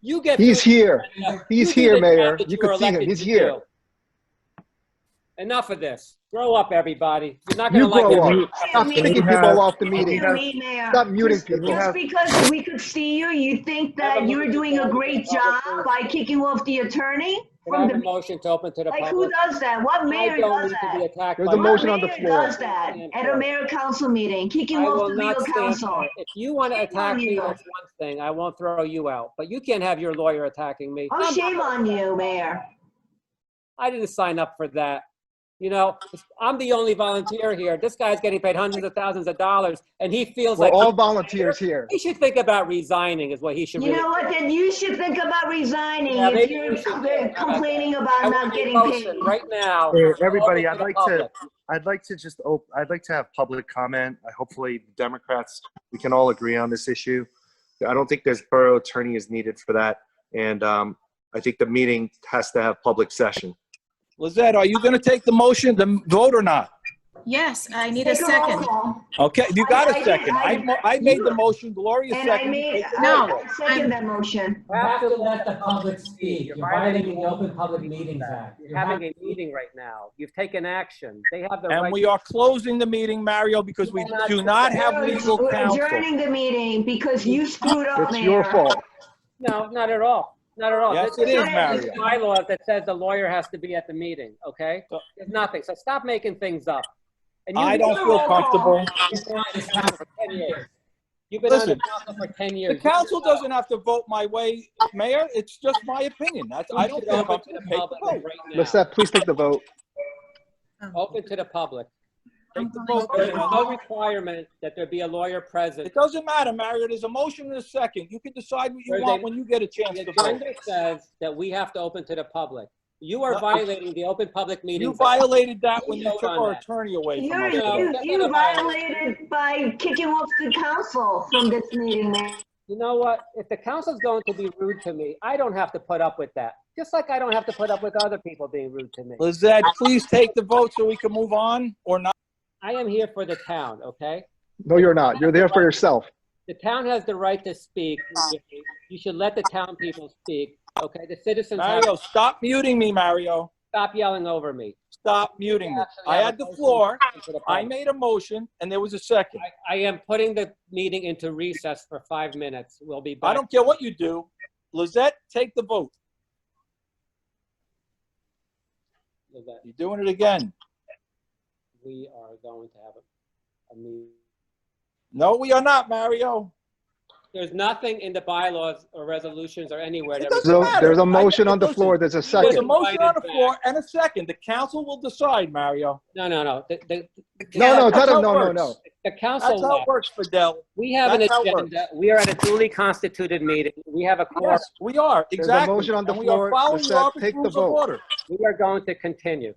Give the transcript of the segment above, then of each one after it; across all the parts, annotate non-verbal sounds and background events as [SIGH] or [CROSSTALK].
You get. He's through- here. Enough. He's You do here, the Mayor. job that You could were see him. elected He's to here. do. Enough of this. Grow up, everybody. You're not You gonna like grow it. up. Stop kicking people off the meeting. Excuse me, Mayor. Stop muting Just- people. Just because we could see you, you think that you're doing a great job by kicking off the attorney Can I from have a the, motion to open to the like, who public? does that? What mayor I don't does need to be that? attacked There's by a this. motion on the What mayor floor. does that at a mayor council meeting, kicking I off will the not legal stand. counsel? If you want to Shame attack on me, you. that's one thing. I won't throw you out, but you can't have your lawyer attacking me. Oh, shame on you, mayor. I didn't sign up for that. You know, I'm the only volunteer here. This guy's getting paid hundreds of thousands of dollars and he feels We're like all volunteers here. he should think about resigning is what he should You really. know what, then you should think about resigning Yeah, if maybe you you're should com- think about complaining I about want not a getting motion paid. Right now. Hey, everybody, Open I'd the like public. to- I'd like to just, op- I'd like to have public comment. I- Hopefully Democrats, we can all agree on this issue. I don't think there's borough attorney is needed for that. And um, I think the meeting has to have public session. Lizette, are you going to take the motion, the vote or not? Yes, I need a Take a roll second. call. Okay, you got I- I a second. did- I- I, mo- I made the motion, Gloria And I seconded. made, I- No, I second that motion. You have to let the public speak. You're violating the Open Public Meetings Act. You're having a meeting right now. You've taken action. They have the And right. we are closing the meeting, Mario, because we do not have legal We're counsel. Adjourning the meeting because you screwed up, It's your Mayor. fault. No, not at all. Not at all. Yes, This it is, this Mario. bylaws that says the lawyer has to be at the meeting, okay? There's nothing. So stop making things up. And you- I don't feel comfortable. You've been on this council for 10 years. You've been on Listen. the council for 10 The years. council doesn't have to vote my way, Mayor. It's just my opinion. That's, I don't feel comfortable to take the vote. Let's Lisette, please take the vote. Open to the public. Take the vote. There's no requirement that there be a lawyer present. It doesn't matter, Mario. There's a motion and a second. You can decide what you want when you get a chance The to vote. agenda says that we have to open to the public. You are No. violating the open public meeting. You violated that when you took our attorney away from You're, us. No. Mayor. you, you violated by kicking off the council from this meeting, Mayor. You know what? If the council's going to be rude to me, I don't have to put up with that. Just like I don't have to put up with other people being rude to me. Lizette, please take the vote so we can move on or not. I am here for the town, okay? No, you're not. You're there for yourself. The town has the right to speak. You should let the town people speak, okay? The citizens have Mario, to stop muting me, Mario. stop yelling over me. Stop muting me. I had the floor. I made a motion and there was a second. I- I am putting the meeting into recess for five minutes. We'll be back. I don't care what you do. Lizette, take the vote. with that. You're doing it again. We are going to have a- a meeting. No, we are not, Mario. There's nothing in the bylaws or resolutions or anywhere. that- It doesn't So matter. there's a I motion on the listen, floor. There's a There's a second. motion on the floor and a second. The council will decide, Mario. No, no, no. The, the, No, no, it's not That's a, how it no, no, works. no. the council That's how it left. works, Fidel. We have an that's how it agenda. We are at a duly constituted meeting. We have a quorum. Yes, we are, There's a exactly. motion on the And we are floor. following the Lizette, Robert's take the rules of vote. order. We are going to continue.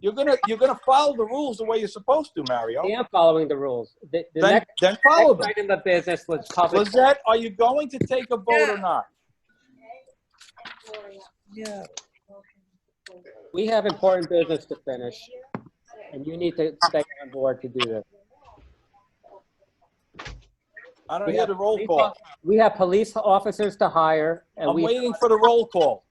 You're gonna, you're gonna follow the rules the way you're supposed to, Mario. I am following the rules. The, the Then, next, then follow next them. item of business was public. Lizette, are you going to take a vote or not? We have important business to finish. And you need to stay on board to do this. I don't We hear have the roll police call. off- We have police officers to hire and I'm we, waiting for the roll call.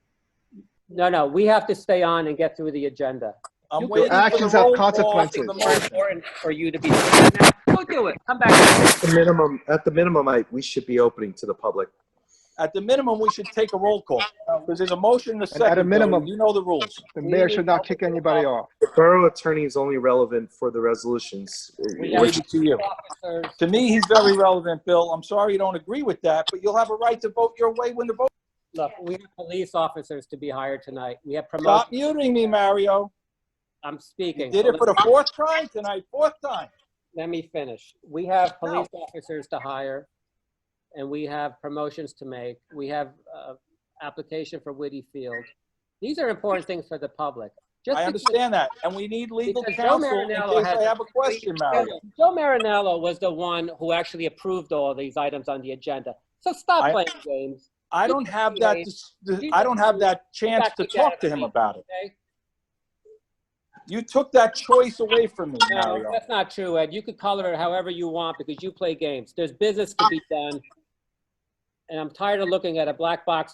[LAUGHS] no, no, we have to stay on and get through the agenda. I'm Your waiting for the actions have roll call for the consequences. More motion. important for you to be, go do it. Come back. At the minimum, at the minimum, I, we should be opening to the public. At the minimum, we should take a roll call, because there's a motion and a And second. at a minimum- Bill, You know the rules. The mayor should not kick anybody off. The borough attorney is only relevant for the resolutions. We have Leave it to you. officers. To me, he's very relevant, Bill. I'm sorry you don't agree with that, but you'll have a right to vote your way when the vote. Look, we have police officers to be hired tonight. We have promotions. Stop muting me, Mario. I'm You speaking. did so it for the let- fourth time tonight, fourth time. Let me finish. We have police officers to hire, and we have promotions to make. We have uh, application for Whitty Field. These are important things for the public. Just I because understand that, and we need legal Because Joe counsel in case Marinello has- I have a question, Mario. Joe Marinello was the one who actually approved all these items on the agenda. So stop I- playing games, I don't have that, dis- dis- I don't have that chance to talk to him about it. okay? You took that choice away from me, No, Mario. that's not true, Ed. You could color it however you want because you play games. There's business to be done. and I'm tired of looking at a black box